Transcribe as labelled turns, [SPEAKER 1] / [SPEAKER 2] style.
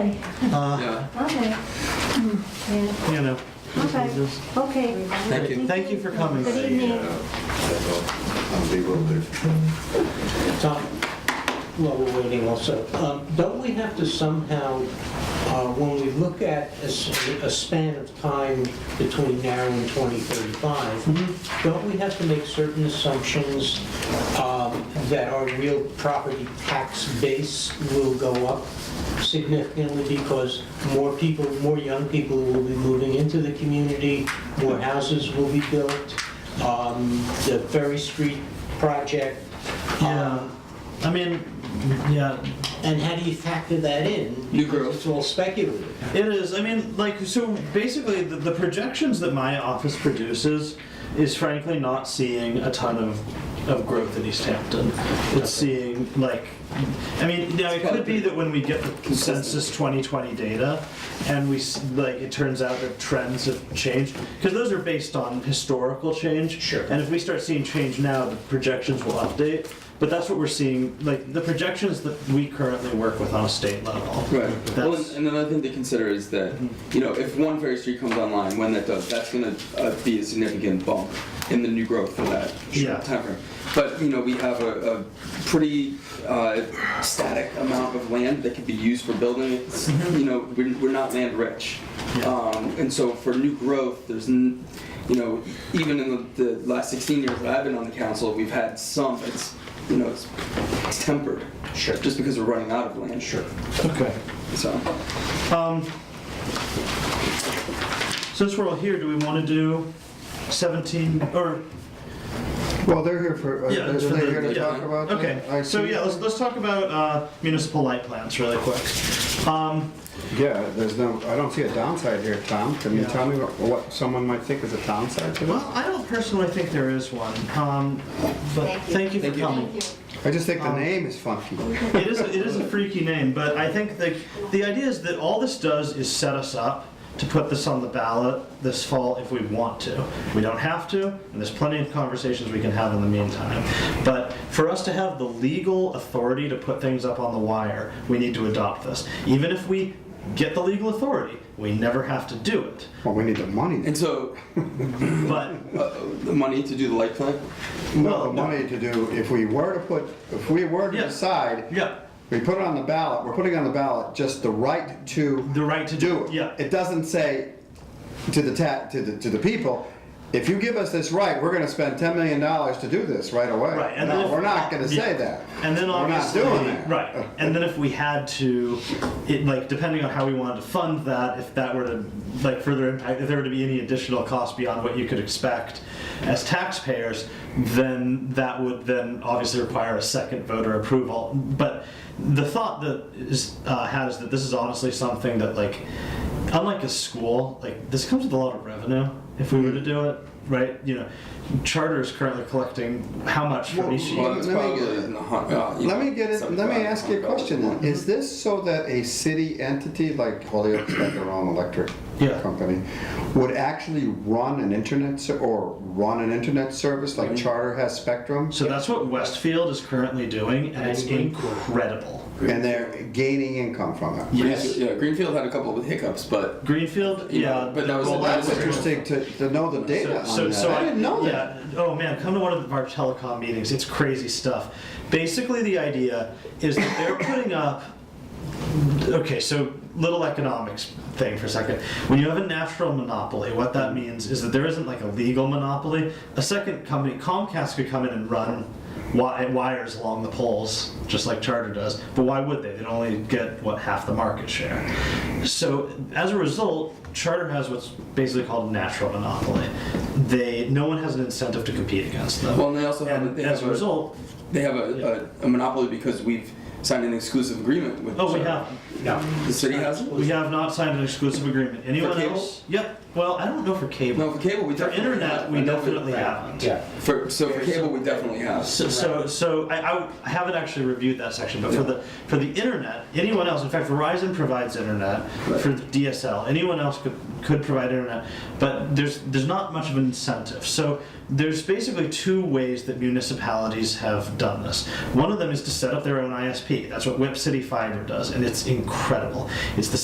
[SPEAKER 1] Uh,
[SPEAKER 2] Yeah,
[SPEAKER 3] Okay. Yeah,
[SPEAKER 1] You know.
[SPEAKER 3] Okay.
[SPEAKER 1] just-
[SPEAKER 3] okay.
[SPEAKER 2] Thank you.
[SPEAKER 1] Thank you for coming.
[SPEAKER 3] Good evening.
[SPEAKER 4] I'm bewildered.
[SPEAKER 5] Tom, while we're waiting also, um, don't we have to somehow, uh, when we look at a s- a span of time between now and 2035, don't we have to make certain assumptions um, that our real property tax base will go up significantly because more people, more young people will be moving into the community, more houses will be built, um, the Ferry Street project,
[SPEAKER 1] Yeah.
[SPEAKER 5] um,
[SPEAKER 1] I mean, yeah,
[SPEAKER 5] and how do you factor that in?
[SPEAKER 2] New
[SPEAKER 5] Because
[SPEAKER 2] growth.
[SPEAKER 5] It's all speculative.
[SPEAKER 1] it is. I mean, like, so basically, the, the projections that my office produces is frankly not seeing a ton of, of growth in East Hampton. It's seeing, like, I mean, now it could be that when we get the census 2020 data and we, s- like, it turns out that trends have changed, because those are based on historical change.
[SPEAKER 5] Sure.
[SPEAKER 1] And if we start seeing change now, the projections will update. But that's what we're seeing, like, the projections that we currently work with on a state level.
[SPEAKER 2] right. Well, and,
[SPEAKER 1] That's-
[SPEAKER 2] and another thing to consider is that, you know, if one Ferry Street comes online, when that does, that's going to uh, be a significant bump in the new growth for that
[SPEAKER 1] Yeah.
[SPEAKER 2] timeframe. But, you know, we have a, a pretty uh, static amount of land that can be used for building. It's, You know, we're, we're not land rich.
[SPEAKER 1] Mm-hmm. Yeah.
[SPEAKER 2] Um, and so for new growth, there's, n- you know, even in the, the last 16 years that I've been on the council, we've had some, but it's, you know, it's, it's tempered.
[SPEAKER 5] Sure.
[SPEAKER 2] Just because we're running out of land. Sure.
[SPEAKER 1] Okay.
[SPEAKER 2] So,
[SPEAKER 1] Um, since we're all here, do we want to do 17 or
[SPEAKER 4] Well, they're here for, uh,
[SPEAKER 1] yeah?
[SPEAKER 4] they're
[SPEAKER 1] it's for
[SPEAKER 4] they're
[SPEAKER 1] the-
[SPEAKER 4] here to
[SPEAKER 1] yeah.
[SPEAKER 4] talk about. the
[SPEAKER 1] Okay.
[SPEAKER 4] IT.
[SPEAKER 1] So yeah, let's, let's talk about uh, municipal light plants really quick. Um,
[SPEAKER 4] Yeah, there's no, I don't see a downside here, Tom. Can you
[SPEAKER 1] Yeah.
[SPEAKER 4] tell me what- what someone might think is a downside to
[SPEAKER 1] well,
[SPEAKER 4] this?
[SPEAKER 1] I don't personally think there is one, um, but
[SPEAKER 3] Thank you.
[SPEAKER 1] thank you for
[SPEAKER 2] Thank you.
[SPEAKER 1] coming.
[SPEAKER 4] I just think the
[SPEAKER 1] Um,
[SPEAKER 4] name is funky.
[SPEAKER 1] it is a, it is a freaky name, but I think the the idea is that all this does is set us up to put this on the ballot this fall if we want to. We don't have to, and there's plenty of conversations we can have in the meantime. But for us to have the legal authority to put things up on the wire, we need to adopt this. Even if we get the legal authority, we never have to do it.
[SPEAKER 4] Well, we need the money.
[SPEAKER 2] and so
[SPEAKER 1] But
[SPEAKER 2] uh, the money to do the light plant.
[SPEAKER 4] No,
[SPEAKER 1] well,
[SPEAKER 4] the
[SPEAKER 1] no.
[SPEAKER 4] money to do, if we were to put, if we were to
[SPEAKER 1] Yeah.
[SPEAKER 4] decide,
[SPEAKER 1] yeah,
[SPEAKER 4] we put it on the ballot, we're putting on the ballot just the right to
[SPEAKER 1] the right to
[SPEAKER 4] do it.
[SPEAKER 1] Yeah.
[SPEAKER 4] It doesn't say to the ta, to the, to the people, if you give us this right, we're gonna spend ten million dollars to do this right away.
[SPEAKER 1] Right, and then
[SPEAKER 4] No,
[SPEAKER 1] if-
[SPEAKER 4] we're not gonna
[SPEAKER 1] yeah.
[SPEAKER 4] say that.
[SPEAKER 1] And then
[SPEAKER 4] We're not
[SPEAKER 1] obviously,
[SPEAKER 4] doing that.
[SPEAKER 1] right? And then if we had to, it like depending on how we wanted to fund that, if that were to like further impact, if there were to be any additional cost beyond what you could expect as taxpayers, then that would then obviously require a second voter approval. But the thought that is uh, had is that this is honestly something that like, unlike a school, like this comes with a lot of revenue if we were to do it. Right, you know, charter is currently collecting how much from
[SPEAKER 4] Well,
[SPEAKER 1] each
[SPEAKER 2] Well, it's
[SPEAKER 4] Let me
[SPEAKER 2] probably
[SPEAKER 4] get-
[SPEAKER 2] in the hun- uh, you
[SPEAKER 4] Let
[SPEAKER 2] know,
[SPEAKER 4] me get it, let me
[SPEAKER 2] 75,
[SPEAKER 4] ask you a question then. Is
[SPEAKER 1] Mm-hmm.
[SPEAKER 4] this so that a city entity like Holyoke's got their own electric
[SPEAKER 1] Yeah.
[SPEAKER 4] company would actually run an internet ser- or run an internet service
[SPEAKER 1] Mm-hmm.
[SPEAKER 4] like Charter has Spectrum?
[SPEAKER 1] So that's what Westfield is currently doing, and it's
[SPEAKER 5] That's
[SPEAKER 1] incredible.
[SPEAKER 4] And they're gaining income from it.
[SPEAKER 2] Greenfield- Yeah, Greenfield had a couple of hiccups, but
[SPEAKER 1] Greenfield,
[SPEAKER 2] Yeah,
[SPEAKER 1] yeah.
[SPEAKER 2] but that was
[SPEAKER 1] well,
[SPEAKER 2] a-
[SPEAKER 4] Well, that's interesting to, to know the data on
[SPEAKER 1] So,
[SPEAKER 4] that.
[SPEAKER 1] so
[SPEAKER 4] I didn't know that.
[SPEAKER 1] yeah. Oh man, come to one of our telecom meetings. It's crazy stuff. Basically, the idea is that they're putting up. Okay, so little economics thing for a second. When you have a natural monopoly, what that means is that there isn't like a legal monopoly. A second company, Comcast, could come in and run wi- wires along the poles, just like Charter does. But why would they? They'd only get what half the market share. So as a result, Charter has what's basically called a natural monopoly. They no one has an incentive to compete against them.
[SPEAKER 2] well, and they also have a,
[SPEAKER 1] and
[SPEAKER 2] they
[SPEAKER 1] as
[SPEAKER 2] have
[SPEAKER 1] a result,
[SPEAKER 2] they have a, a, a monopoly because we've signed an exclusive agreement with.
[SPEAKER 1] oh, we
[SPEAKER 2] Charter.
[SPEAKER 1] have
[SPEAKER 5] No.
[SPEAKER 2] The city has.
[SPEAKER 1] we have not signed an exclusive agreement. Anyone
[SPEAKER 2] cable?
[SPEAKER 1] else? Yep. Well, I don't know for cable.
[SPEAKER 2] No, for cable we
[SPEAKER 1] For
[SPEAKER 2] definitely
[SPEAKER 1] internet,
[SPEAKER 2] have. I
[SPEAKER 1] we
[SPEAKER 2] know
[SPEAKER 1] definitely
[SPEAKER 2] for,
[SPEAKER 1] haven't.
[SPEAKER 5] Yeah.
[SPEAKER 2] For so for cable we definitely have.
[SPEAKER 1] So, so, so I- I, w- I haven't actually reviewed that section, but for the for the internet, anyone else. In fact, Verizon provides internet for the DSL. Anyone else could could provide internet, but there's there's not much of an incentive. So there's basically two ways that municipalities have done this. One of them is to set up their own ISP WSP. That's what Whip City Fiber does, and it's incredible. It's the